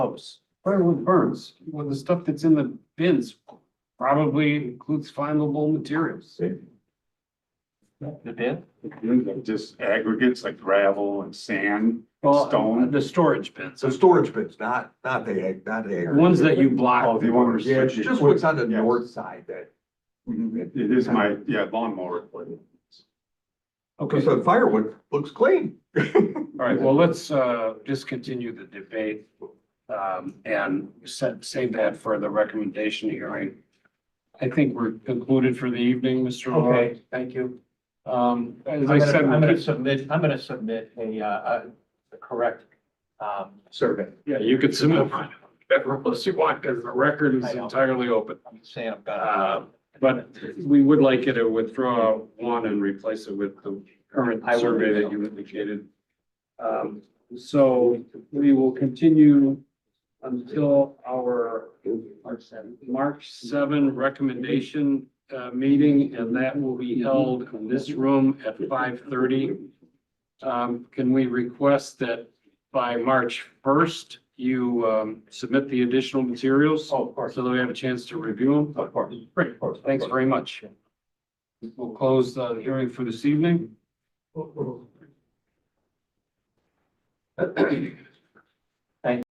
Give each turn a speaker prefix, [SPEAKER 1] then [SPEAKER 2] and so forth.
[SPEAKER 1] house. Where wood burns, well, the stuff that's in the bins probably includes flammable materials.
[SPEAKER 2] The bin?
[SPEAKER 3] Just aggregates like gravel and sand,
[SPEAKER 1] Well,
[SPEAKER 3] Stone.
[SPEAKER 1] the storage bins,
[SPEAKER 4] So storage bins, not, not the, ag- not the.
[SPEAKER 1] the
[SPEAKER 4] ag-
[SPEAKER 1] ones that you
[SPEAKER 3] Oh,
[SPEAKER 1] block.
[SPEAKER 3] if you want to
[SPEAKER 4] Yeah,
[SPEAKER 3] restrict
[SPEAKER 4] it's
[SPEAKER 3] it.
[SPEAKER 4] just what's on the
[SPEAKER 3] Yes.
[SPEAKER 4] north side that,
[SPEAKER 3] Mhm. It is my, yeah, lawnmower.
[SPEAKER 1] Okay, all
[SPEAKER 4] so firewood looks clean.
[SPEAKER 1] right, well, let's uh just continue the debate. Um, and set, save that for the recommendation hearing. I think we're concluded for the evening, Mr. Roy.
[SPEAKER 2] Okay.
[SPEAKER 1] Thank you. Um,
[SPEAKER 2] I'm
[SPEAKER 1] as I
[SPEAKER 2] gonna,
[SPEAKER 1] said.
[SPEAKER 2] I'm
[SPEAKER 1] we'll
[SPEAKER 2] gonna
[SPEAKER 1] keep-
[SPEAKER 2] submit, I'm gonna submit a, uh, uh, the correct, um,
[SPEAKER 4] Survey.
[SPEAKER 1] Yeah, you could submit whatever rules you want, because the record is entirely open.
[SPEAKER 2] I'm saying I've
[SPEAKER 1] Uh,
[SPEAKER 2] got.
[SPEAKER 1] But we would like you to withdraw one and replace it with the current
[SPEAKER 2] I will.
[SPEAKER 1] survey that you indicated. Um, so we will continue until our March seven, recommendation, uh, meeting, and that will be held in this room at five thirty. Um, can we request that by March first, you, um, submit the additional materials?
[SPEAKER 2] Oh, of course,
[SPEAKER 1] So that we have a chance to review them?
[SPEAKER 2] of course.
[SPEAKER 1] Great, thanks very much. We'll close the hearing for this evening.
[SPEAKER 2] much.